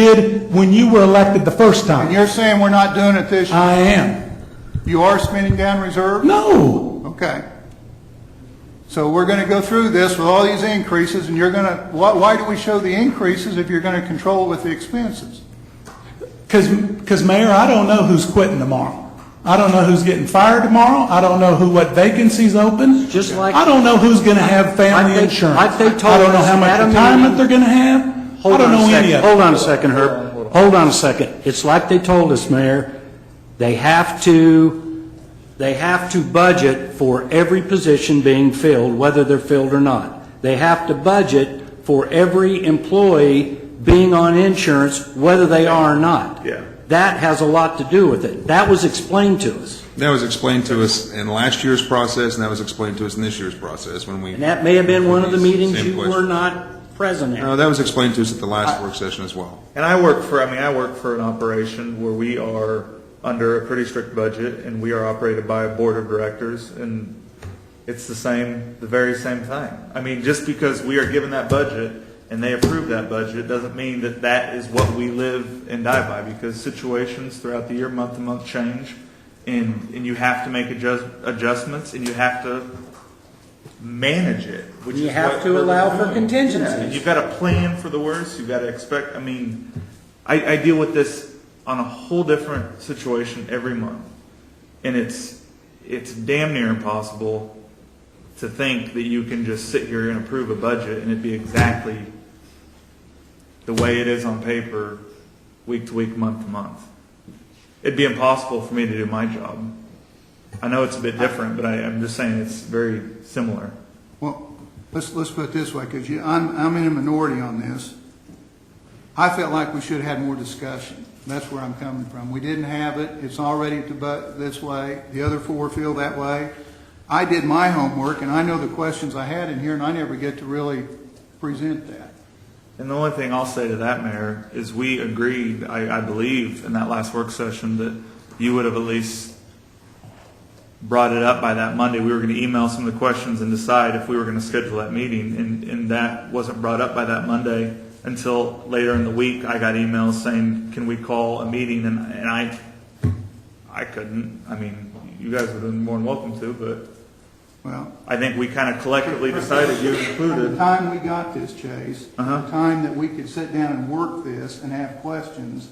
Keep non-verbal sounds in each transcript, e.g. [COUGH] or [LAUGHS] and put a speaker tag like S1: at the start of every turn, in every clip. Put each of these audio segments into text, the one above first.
S1: did when you were elected the first
S2: And
S1: time.
S2: you're saying we're not doing it this,
S1: I am.
S2: you are spending down reserve?
S1: No,
S2: Okay. So we're going to go through this with all these increases, and you're going to, why, why do we show the increases if you're going to control with the expenses?
S1: because, Mayor, I don't know who's quitting tomorrow. I don't know who's getting fired tomorrow. I don't know who, what vacancies open.
S3: Just like-
S1: I don't know who's going to have
S3: Like
S1: family
S3: they-
S1: insurance.
S3: like they told
S1: I don't know
S3: us
S1: how much
S3: at a
S1: retirement
S3: meeting-
S1: they're going to have. I
S3: Hold
S1: don't
S3: on a
S1: know any
S3: second,
S1: of it.
S3: hold on a second, Herb. Hold on a second. It's like they told us, Mayor, they have to, they have to budget for every position being filled, whether they're filled or not. They have to budget for every employee being on insurance, whether they are or not.
S4: Yeah.
S3: That has a lot to do with it. That was explained to us,
S5: That was explained to us in last year's process, and that was explained to us in this year's process when we.
S3: and that may have been one of the meetings
S5: Same
S3: you
S5: question.
S3: were not present
S5: No,
S3: at.
S5: that was explained to us at the last work session as well.
S4: And I work for, I mean, I work for an operation where we are under a pretty strict budget and we are operated by a board of directors and it's the same, the very same thing. I mean, just because we are given that budget and they approve that budget doesn't mean that that is what we live and die by because situations throughout the year, month to month change and, and you have to make adjust, adjustments and you have to manage it, which
S3: You
S4: is
S3: have
S4: what
S3: to
S4: we're
S3: allow for
S4: doing.
S3: contingencies.
S4: Yeah, and You've got to plan for the worst. You've got to expect. I mean, I, I deal with this on a whole different situation every month, and it's it's damn near impossible to think that you can just sit here and approve a budget and it be exactly the way it is on paper, week to week, month to month. It'd be impossible for me to do my job. I know it's a bit different, but I, I'm just saying it's very similar.
S2: Well, let's, let's put it this way, because you, I'm, I'm in a minority on this. I felt like we should have had more discussion. That's where I'm coming from. We didn't have it. It's already to bu- this way. The other four feel that way. I did my homework, and I know the questions I had in here, and I never get to really present that.
S4: And the only thing I'll say to that, Mayor, is we agreed, I, I believe, in that last work session, that you would have at least brought it up by that Monday. We were going to email some of the questions and decide if we were going to schedule that meeting, and, and that wasn't brought up by that Monday until later in the week. I got emails saying, can we call a meeting? And, and I, I couldn't. I mean, you guys would have been more than welcome to, but
S2: Well,
S4: I think we kind of collectively decided, you
S2: By the
S4: included.
S2: time we got this, Chase, the
S4: Uh-huh.
S2: time that we could sit down and work this and have questions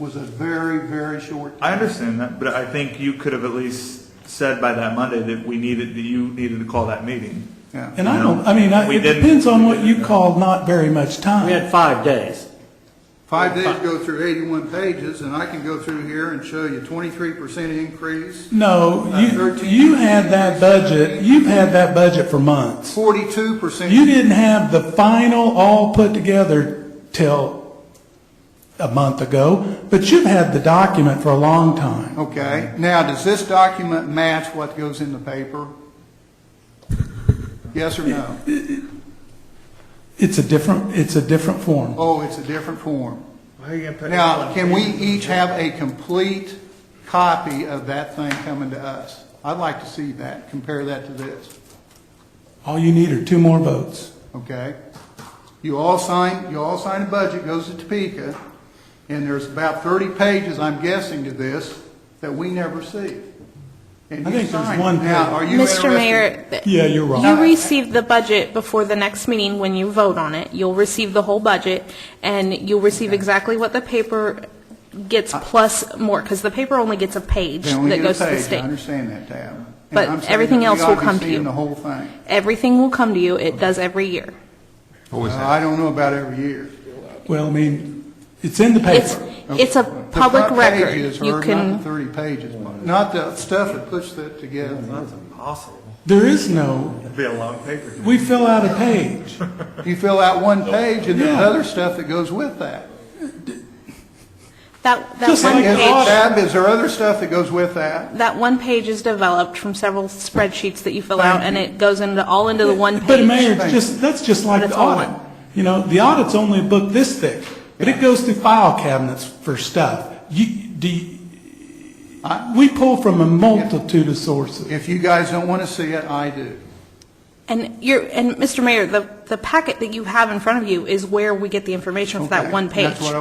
S2: was a very, very short
S4: I
S2: time.
S4: understand that, but I think you could have at least said by that Monday that we needed, that you needed to call that meeting.
S2: Yeah.
S1: And I don't, I mean, I-
S4: We
S1: it
S4: didn't-
S1: depends on
S4: we
S1: what you
S4: didn't.
S1: call not very much
S3: We
S1: time.
S3: had five days.
S2: Five days go through 81 pages, and I can go through here and show you 23% increase,
S1: No,
S2: Uh,
S1: you,
S2: 13.
S1: you had that budget, you've had that budget for months.
S2: 42%.
S1: You didn't have the final all put together till a month ago, but you've had the document for a long time.
S2: Okay, now, does this document match what goes in the paper? Yes or no?
S1: It's a different, it's a different form.
S2: Oh, it's a different form.
S4: Why are you gonna put?
S2: Now, can we each have a complete copy of that thing coming to us? I'd like to see that, compare that to this,
S1: All you need are two more votes.
S2: okay? You all sign, you all sign a budget, goes to Topeka, and there's about thirty pages, I'm guessing, to this that we never see. And
S1: I
S2: you
S1: think there's
S2: sign it.
S1: one
S2: Now,
S1: page.
S2: are you
S6: Mr.
S2: interested?
S6: Mayor. th-
S1: Yeah, you're wrong.
S6: You receive the budget before the next meeting when you vote on it. You'll receive the whole budget, and you'll receive exactly what the paper gets plus more, because the paper only gets a page
S2: Uh, Then we
S6: that
S2: get a
S6: goes to the
S2: page, I
S6: state.
S2: understand that, Tab. And
S6: But
S2: I'm saying
S6: everything
S2: that
S6: else
S2: we
S6: will
S2: ought be
S6: come to
S2: seeing
S6: you.
S2: the whole thing. Uh,
S6: Everything will come to you. It does every year.
S5: Always
S2: Well,
S5: have.
S2: I don't know about every year.
S1: Well, I mean, it's in the
S6: It's,
S1: paper.
S6: it's a
S2: The
S6: public
S2: front page
S6: record.
S2: is
S6: You
S2: hers, Not the
S6: can,
S2: 30 pages, not the stuff that puts that together.
S4: That's impossible.
S1: There is no,
S4: It'd be a long paper.
S1: we fill out a page.
S2: You fill out one page and there's
S1: Yeah.
S2: other stuff that goes with that.
S6: that, that
S1: Just
S6: one
S1: like
S2: Is,
S1: audit.
S6: page,
S2: Tab, is there other stuff that goes with that?
S6: that one page is developed from several spreadsheets that you fill
S2: Thank
S6: out, and
S2: you.
S6: it goes into, all into the [LAUGHS] one page.
S1: But Mayor, it's
S2: Thank
S1: just, that's just like
S6: But
S1: the
S6: it's all
S1: audit.
S6: one.
S1: You know, the audit's only a book this thick, but it goes through file cabinets for stuff. You, do, you- we pull from a multitude of sources.
S2: If you guys don't want to see it, I do.
S6: And you're, and Mr. Mayor, the, the packet that you have in front of you is where we get the information for that
S2: Okay,
S6: one page.
S2: that's what I